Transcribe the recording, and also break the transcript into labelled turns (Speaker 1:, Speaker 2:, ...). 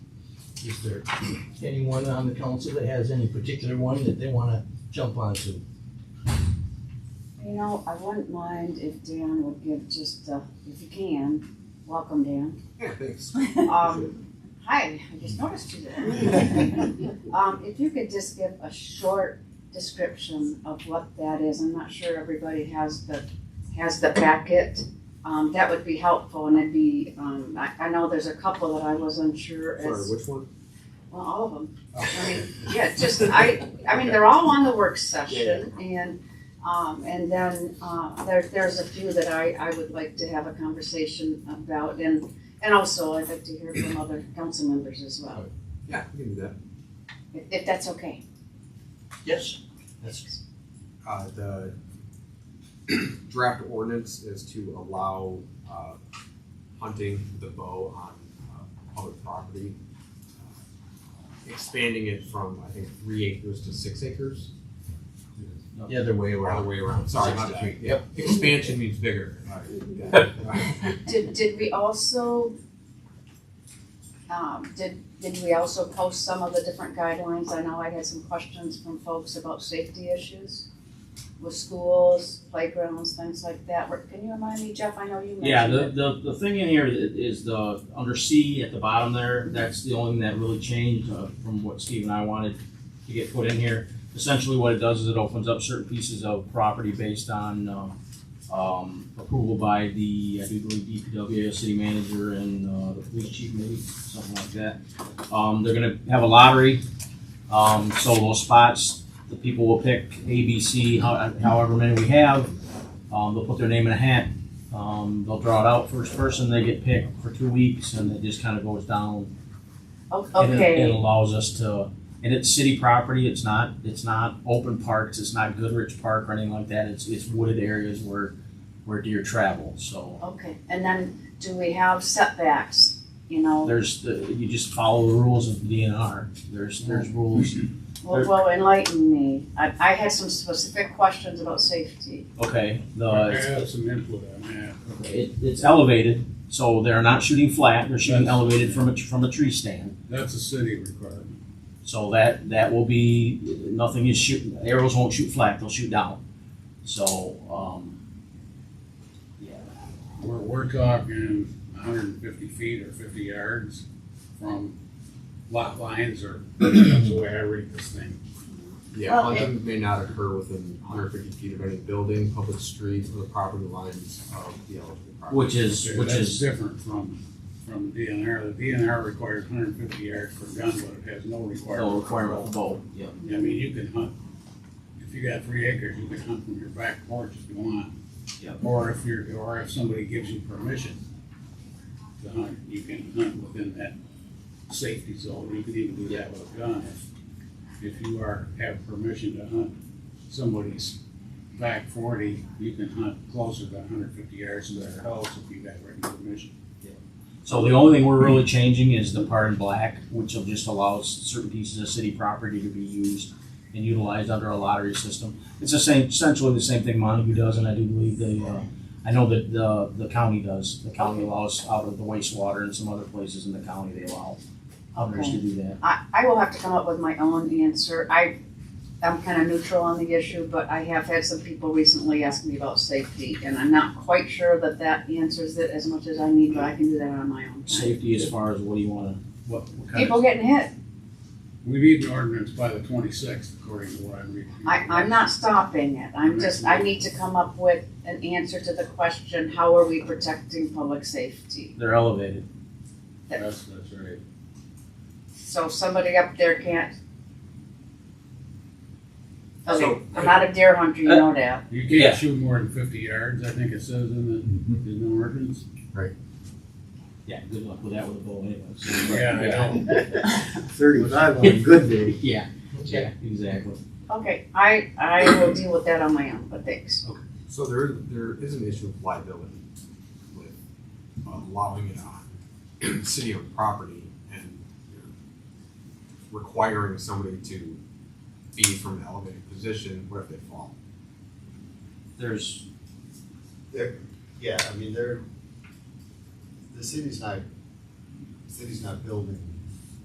Speaker 1: Is there anyone on the council that has any particular one that they wanna jump onto?
Speaker 2: You know, I wouldn't mind if Dan would give just, uh, if you can, welcome Dan.
Speaker 3: Yeah, thanks.
Speaker 2: Um, hi, I just noticed you there. Um, if you could just give a short description of what that is, I'm not sure everybody has the, has the packet. Um, that would be helpful and it'd be, um, I, I know there's a couple that I was unsure
Speaker 3: Sorry,
Speaker 2: as,
Speaker 3: which one?
Speaker 2: well, all of them. I
Speaker 3: Oh.
Speaker 2: mean, yeah, just, I, I mean, they're all on the work session and, um, and then, uh, there, there's a few that I, I would like to have a conversation about and, and also I'd like to hear from other council members as well,
Speaker 3: Yeah, we can do that.
Speaker 2: if, if that's okay.
Speaker 1: Yes. That's,
Speaker 3: Uh, the draft ordinance is to allow, uh, hunting with a bow on, uh, public property. Uh, Expanding it from, I think, three acres to six acres,
Speaker 1: the other way
Speaker 3: or
Speaker 1: around.
Speaker 3: other way around, sorry, not
Speaker 1: Six to
Speaker 3: between, yep, expansion means bigger.
Speaker 2: Did, did we also, um, did, did we also post some of the different guidelines? I know I had some questions from folks about safety issues with schools, playgrounds, things like that. Can you remind me, Jeff? I know you mentioned it.
Speaker 4: Yeah, the, the, the thing in here i- is the, under C at the bottom there, that's the only thing that really changed uh, from what Steve and I wanted to get put in here. Essentially what it does is it opens up certain pieces of property based on, um, um, approval by the, I do believe DPW, city manager and, uh, the police chief maybe, something like that. Um, they're gonna have a lottery, um, so those spots, the people will pick A, B, C, how- however many we have. Um, they'll put their name in a hat, um, they'll draw it out first person, they get picked for two weeks, and it just kind of goes down.
Speaker 2: O-
Speaker 4: And it- It
Speaker 2: Okay,
Speaker 4: allows us to, and it's city property, it's not, it's not open parks, it's not Goodrich Park or anything like that, it's, it's wooded areas where, where deer travel, so.
Speaker 2: okay, and then do we have setbacks, you know,
Speaker 4: There's, the- you just follow the rules of the DNR, there's, there's rules,
Speaker 2: well, well, enlighten me, I, I had some specific questions about safety.
Speaker 4: okay,
Speaker 5: I
Speaker 4: the,
Speaker 5: have some input on that.
Speaker 4: it, it's elevated, so they're not shooting flat, they're shooting
Speaker 5: That's-
Speaker 4: elevated from a, from a tree stand.
Speaker 5: That's a city requirement.
Speaker 4: So that, that will be, nothing is shoot, arrows won't shoot flat, they'll shoot down. So, um, yeah,
Speaker 5: We're, we're talking hundred and fifty feet or fifty yards from lot lines or, that's the way I read this thing.
Speaker 3: Yeah,
Speaker 2: Well,
Speaker 3: hunting may not occur within hundred fifty feet of any building, public streets, or the property lines of the eligible property.
Speaker 4: which is,
Speaker 5: Okay,
Speaker 4: which
Speaker 5: That's
Speaker 4: is,
Speaker 5: different from, from the DNR. The DNR requires hundred and fifty yards per gun, but it has no requirement.
Speaker 4: no requirement for bow, yeah.
Speaker 5: I mean, you can hunt, if you got three acres, you can hunt from your back porch if you want.
Speaker 4: Yep.
Speaker 5: Or if you're, or if somebody gives you permission to hunt, you can hunt within that safety zone, you can even do that with a gun. If- If you are, have permission to hunt somebody's back forty, you can hunt closer than hundred fifty yards to their house if you got written permission.
Speaker 4: So the only thing we're really changing is the part in black, which will just allows certain pieces of city property to be used and utilized under a lottery system. It's the same, essentially the same thing Montague does, and I do believe the, uh, I know that the, the county does. The county allows out of the wastewater and some other places in the county, they allow others to do that.
Speaker 2: I, I will have to come up with my own answer, I, I'm kinda neutral on the issue, but I have had some people recently ask me about safety, and I'm not quite sure that that answers it as much as I need, but I can do that on my own time.
Speaker 4: Safety as far as what do you wanna,
Speaker 5: What, what kind
Speaker 2: People
Speaker 5: of,
Speaker 2: getting hit,
Speaker 5: we need an ordinance by the twenty-sixth, according to what I'm reading.
Speaker 2: I, I'm not stopping it, I'm just, I need to come up with an answer to the question, how are we protecting public safety?
Speaker 4: they're elevated.
Speaker 5: That's, that's right.
Speaker 2: So somebody up there can't. Okay,
Speaker 3: So-
Speaker 2: I'm not a deer hunter, you know that,
Speaker 5: You
Speaker 4: Yeah.
Speaker 5: can't shoot more than fifty yards, I think it says in the, in the ordinance.
Speaker 4: Yeah, good luck with that with a bow anyway. so-
Speaker 5: Yeah, I know.
Speaker 6: Thirty-five on a good day.
Speaker 4: Yeah, yeah, exactly.
Speaker 2: okay, I, I will deal with that on my own, but thanks.
Speaker 3: So there, there is an issue of liability with allowing it on city-owned property and you know, requiring somebody to be from an elevated position, what if they fall?
Speaker 4: There's,
Speaker 6: Yeah, I mean, they're, the city's not, city's not building